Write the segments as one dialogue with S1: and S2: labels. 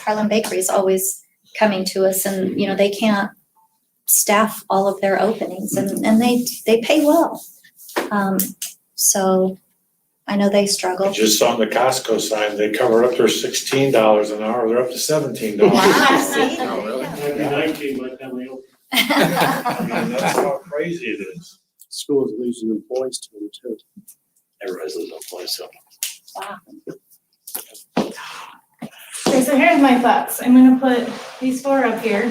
S1: Harlem Bakery is always coming to us and, you know, they can't staff all of their openings and, and they, they pay well. Um, so I know they struggle.
S2: Just on the Costco sign, they covered up their sixteen dollars an hour, they're up to seventeen dollars.
S1: Wow, see?
S2: Oh, really?
S3: Might be nineteen by the time they open.
S2: I mean, that's how crazy it is.
S3: School is losing employees to them too.
S4: Everybody's losing employees, so.
S5: Okay, so here's my thoughts. I'm gonna put these four up here,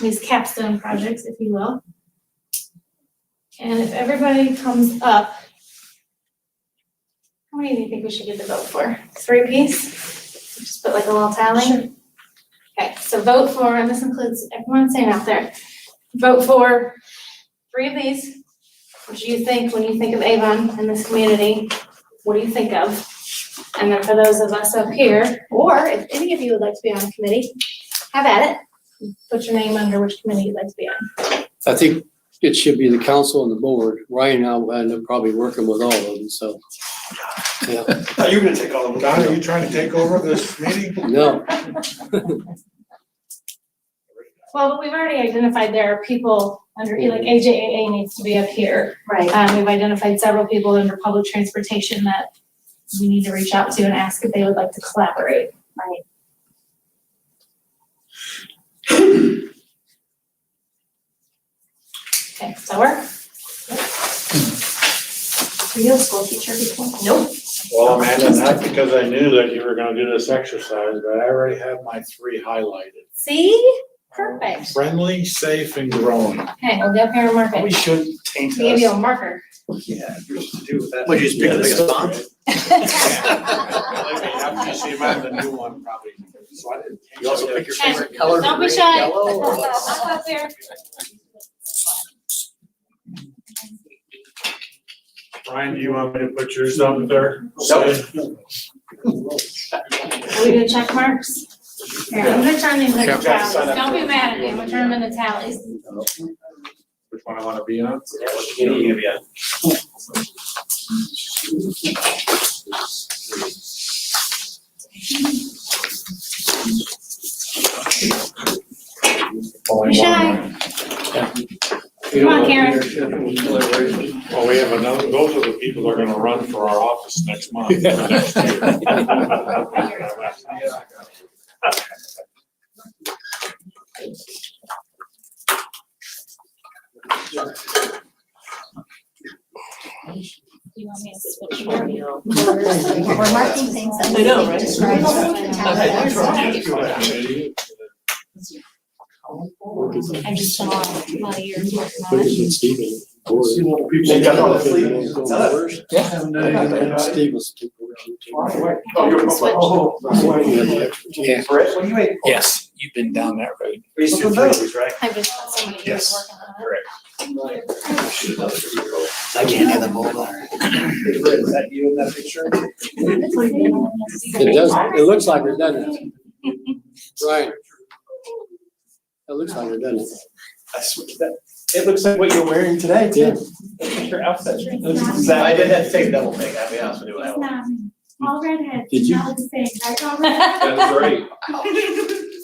S5: these capstone projects, if you will. And if everybody comes up, how many do you think we should get the vote for? Three piece? Just put like a little tally? Okay, so vote for, and this includes everyone saying out there, vote for three of these, which you think, when you think of Avon and this community, what do you think of? And then for those of us up here, or if any of you would like to be on a committee, have at it. Put your name under which committee you'd like to be on.
S6: I think it should be the council and the board. Ryan and I will end up probably working with all of them, so. Yeah,
S2: You're gonna take all of them. Don, are you trying to take over this meeting?
S6: no,
S5: Well, but we've already identified there are people under, like AJAA needs to be up here.
S1: Right.
S5: Um, we've identified several people under public transportation that we need to reach out to and ask if they would like to collaborate.
S1: Right.
S5: Okay, does that work?
S1: Were you a school teacher before?
S5: Nope.
S2: Well, Amanda, not because I knew that you were gonna do this exercise, but I already have my three highlighted.
S5: See? Perfect.
S2: Friendly, safe, and growing.
S5: Okay, we'll get up here and mark it.
S4: should taint
S5: Give you a marker.
S4: Yeah, yours to do with that.
S3: Would you just pick the biggest bomb?
S2: After you see mine, the new one probably. So I didn't-
S3: You also pick your
S5: Okay.
S3: favorite color.
S5: Don't be
S3: green,
S5: shy.
S3: yellow, or what's-
S5: Up up there.
S2: Ryan, do you want me to put yours up there?
S5: Are we gonna check marks? Here, I'm gonna turn these into
S2: Okay.
S5: tallies. Don't be mad at me, I'm gonna turn them into tallies.
S2: Which one I wanna be on?
S5: Be shy.
S6: Come
S5: on, Karen.
S2: Well, we have another, those are the people that are gonna run for our office next month.
S5: You want me to switch your-
S1: We're marking things that
S7: I
S1: we
S7: know,
S1: can
S7: right?
S1: describe.
S7: Okay, that's right.
S5: I just saw while you were talking about it.
S6: Stephen.
S3: They got all the sleep.
S6: It's us. And Steve was.
S5: You can switch.
S4: Yeah.
S7: Brett, what do you make?
S4: Yes, you've been down that road.
S7: Reese, your threes, right?
S5: I just saw somebody who was
S4: Yes.
S5: working on it.
S4: I can't have them all there.
S7: Hey, Brett, is that you in that picture?
S6: It does, it looks like it, doesn't it? Right. It looks like it, doesn't it?
S7: I swear to that. It looks like what you're wearing today,
S6: Yeah.
S7: too. That's your outfit. Looks
S5: not.
S7: exactly- I did that same double thing, I'll be honest with you. when I went.
S5: All redheads,
S6: Did you-
S5: the same, right, all
S2: That's right.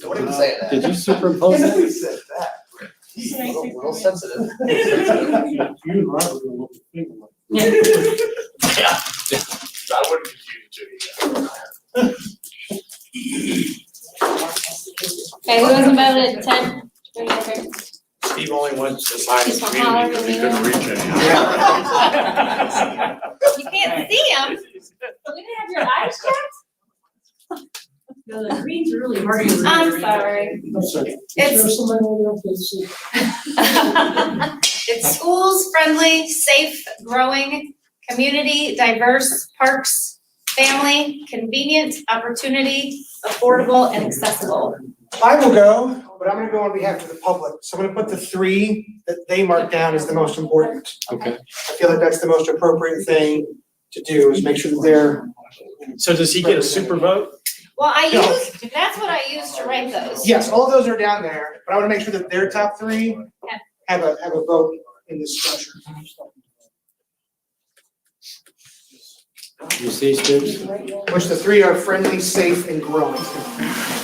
S7: Don't even say that.
S6: Did you superimpose
S7: Nobody
S6: that?
S7: said that.
S5: Should I
S7: Real
S5: take
S7: real
S5: that?
S7: sensitive.
S3: You and Robert are gonna look at the thing like-
S2: I wouldn't confuse you two.
S5: Okay, who hasn't voted, ten? Three, three.
S2: Steve only went to sign his
S5: He's from
S2: community because he couldn't
S5: Colorado.
S2: reach anyone.
S7: Yeah.
S5: You can't see them. You didn't have your eyes checked?
S8: No, the green's really hard.
S5: I'm sorry.
S3: I'm sorry.
S5: It's-
S3: Is there somebody over there that's-
S5: It's schools friendly, safe, growing, community, diverse, parks, family, convenient, opportunity, affordable, and accessible.
S9: I will go, but I'm gonna go on behalf of the public, so I'm gonna put the three that they marked down as the most important.
S6: Okay.
S9: I feel like that's the most appropriate thing to do, is make sure that they're,
S4: So does he get a super vote?
S5: Well, I
S9: Yeah.
S5: used, that's what I used to write those.
S9: yes, all those are down there, but I wanna make sure that their top three have a, have a vote in this structure.
S6: You see, Steve?
S9: Which the three are friendly, safe, and growing.